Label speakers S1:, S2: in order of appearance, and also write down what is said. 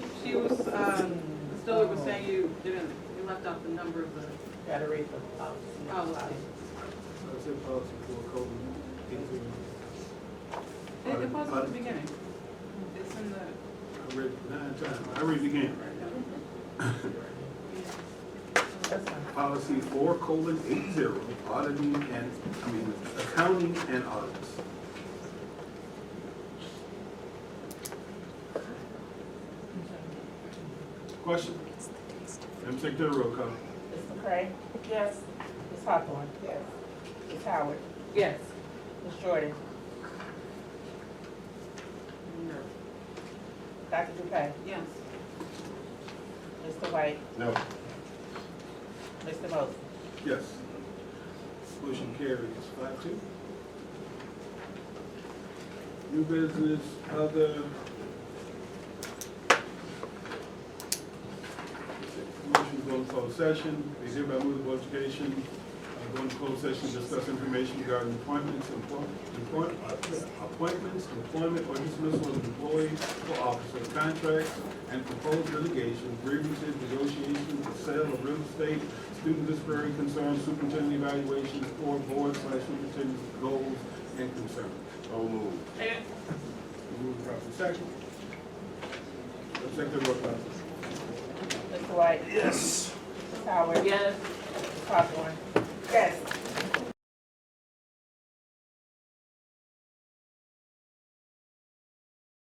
S1: she was, um, Ms. Dillard was saying you didn't, you left out the number of the
S2: Gotta read the policy.
S1: policy.
S3: That's in policy for COVID. I
S1: It, it was at the beginning. It's in the,
S3: read it nine times. I read it again.
S2: That's fine.
S3: Policy four colon eight zero, auditing and, I mean, accounting and audits. Question? Madam Secretary, roll call.
S2: Ms. McCray? Yes. Ms. Hawthorne? Yes. Ms. Howard?
S1: yes.
S2: Ms. Jordan?
S1: No.
S2: Dr. Dupay?
S1: Yes.
S2: Mr. White?
S3: No.
S2: Mr. Mosley?
S3: Yes. Motion carries five two. New business, other. Motion to go into closed session, is hereby moved the Board of Education, uh, go into closed session, to discuss information regarding appointments, employ- employ- uh, appointments, employment or dismissal of employee or officer, contracts, and proposed litigation, grievances, negotiations, the sale of real estate, student disparity concerns, superintendent evaluations, or board slash superintendent's goals and concerns.
S4: So moved.
S1: Second?
S3: Move the proper section. Second roll call.
S2: Mr. White? Yes. Ms. Howard?
S1: Yes.
S2: Ms. Hawthorne? Yes.